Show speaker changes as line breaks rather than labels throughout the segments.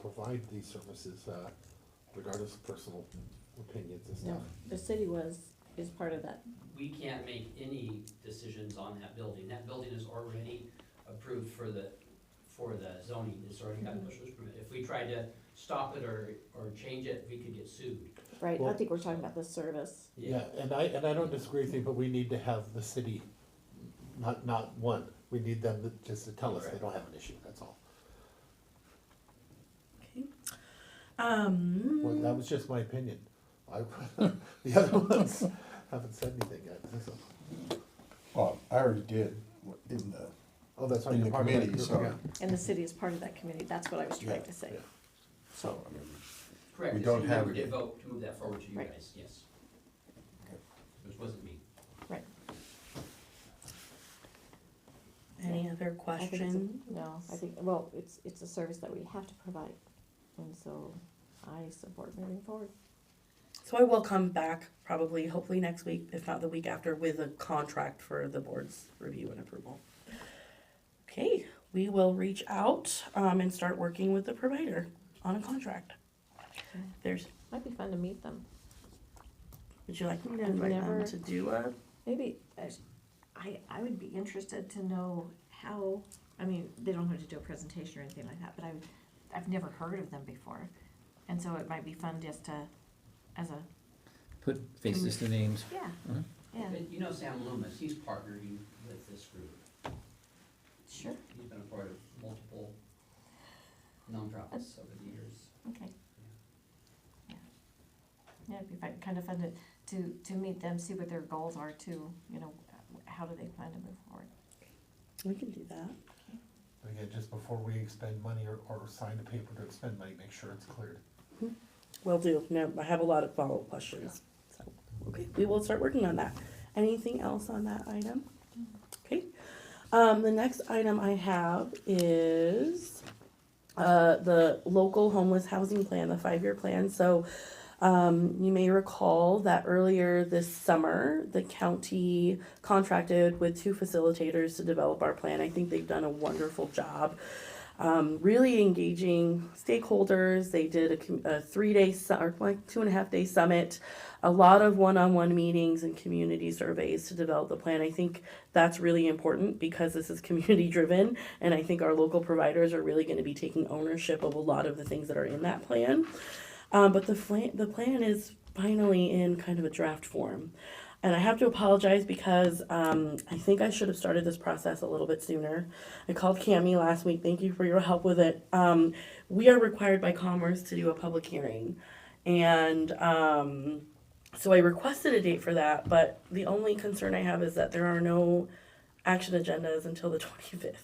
provide these services, uh, regardless of personal opinions and
No,
stuff.
the city was, is part of that.
We can't make any decisions on that building. That building is already approved for the, for the zoning. It's already got a
Mm-hmm.
special use permit. If we tried to stop it or, or change it, we could get sued.
Right, I
Well-
think we're talking about the service.
Yeah, and I, and I don't disagree with you, but we need to have the city, not, not one, we need them to, just to tell us they don't have an issue, that's all. Well, that
Um,
was just my opinion. I, the other ones haven't said anything yet, so.
Well, I already did in the,
Oh, that's right.
In
you're
the
part of that
committee,
group,
so-
yeah.
And the city is part of that committee, that's what I was trying to say.
Yeah.
so, I mean,
Correct.
We
the
don't
city member
have-
Did vote to move that forward to you
Right.
guys, yes.
Okay.
Which wasn't me.
any other
I think it's a-
questions?
No, I think, well, it's, it's a service that we have to provide, and so I support moving forward.
So I will come back probably, hopefully next week, if not the week after, with a contract for the board's review and approval. Okay, we will reach out, um, and start working with the provider on a contract. There's,
Might be fun to meet them.
would you like me to
I've
invite
never-
them to do a?
Maybe, uh, I, I would be interested to know how, I mean, they don't have to do a presentation or anything like that, but I've, I've never heard of them before. And so it might be fun just to, as a,
Put faces to names.
yeah,
Mhm.
yeah,
And You know Sam Loomis, he's partnering with this group.
sure,
He's been a part of multiple nonprofits over the years.
okay. Yeah, Yeah, it'd be fun, kind of fun to, to, to meet them, see what their goals are too, you know, how do they plan to move forward?
We can do that.
Again, just before we expend money or, or sign a paper to expend money, make sure it's cleared.
Will do. No, I have a lot of follow-up questions. So, okay, we will start working on that. Anything else on that item? Okay. Um, the next item I have is uh, the local homeless housing plan, the five-year plan. So um, you may recall that earlier this summer, the county contracted with two facilitators to develop our plan. I think they've done a wonderful job um, really engaging stakeholders. They did a, com- a three day su- or like two and a half day summit, a lot of one on one meetings and community surveys to develop the plan. I think that's really important because this is community driven, and I think our local providers are really going to be taking ownership of a lot of the things that are in that plan. Um, but the flan- the plan is finally in kind of a draft form. And I have to apologize because um, I think I should have started this process a little bit sooner. I called Cami last week. Thank you for your help with it. Um, we are required by Commerce to do a public hearing. And um, so I requested a date for that, but the only concern I have is that there are no action agendas until the 25th.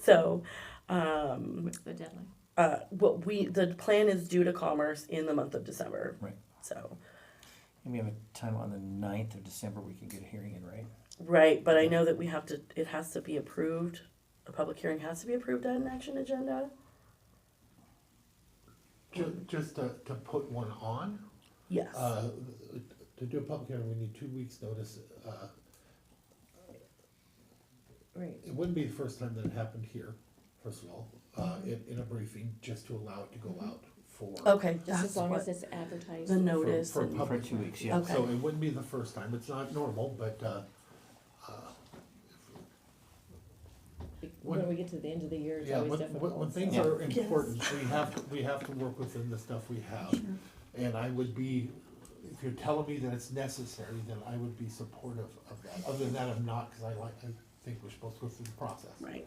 So um,
What's the deadline?
uh, what we the plan is due to commerce in the month of December.
Right.
So
And we have a time on the ninth of December, we can get a hearing in, right?
right, but I know that we have to. It has to be approved. A public hearing has to be approved on an action agenda.
Ju- just to, to put one on,
Yes.
uh, to do a public hearing, we need two weeks' notice, uh,
right.
It wouldn't be the first time that it happened here, first of all, uh, in, in a briefing, just to allow it to go out for.
Okay.
Just as
that's
long
what-
as it's advertised.
the
for-
notice.
For
and-
public.
For two weeks,
hearing.
yeah.
So
Okay.
it wouldn't be the first time, it's not normal, but, uh, uh,
When we get to the end of the year, it's
yeah,
always
when,
difficult.
when, when things
Yeah.
are important, we have, to- we have to work within the stuff we have. And I would be, if you're telling me that it's necessary, then I would be supportive of that, other than that, I'm not, cause I like, I think we're supposed to go through the process.
Right.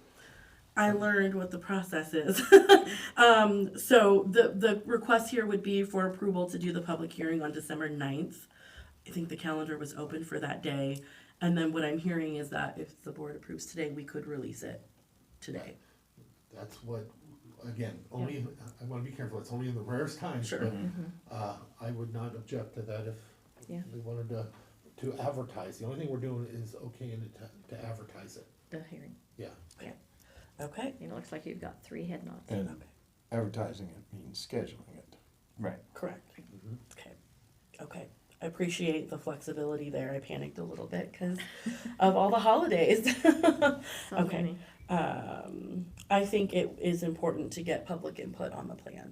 I learned what the process is. um, so the, the request here would be for approval to do the public hearing on December 9th. I think the calendar was open for that day. And then what I'm hearing is that if the board approves today, we could release it today.
That's what, again, only, in- I wanna be careful, it's only in the rarest times,
Sure.
but, uh, I would not object to that if
Yeah.
we wanted to, to advertise, the only thing we're doing is okaying it to, to advertise it,
The hearing,
yeah.
Okay.
it looks like you've got three head nods.
and advertising it means scheduling it.
Right.
Correct. Okay. Okay. I appreciate the flexibility there. I panicked a little bit because of all the holidays.
So
Okay.
many.
um, I think it is important to get public input on the plan.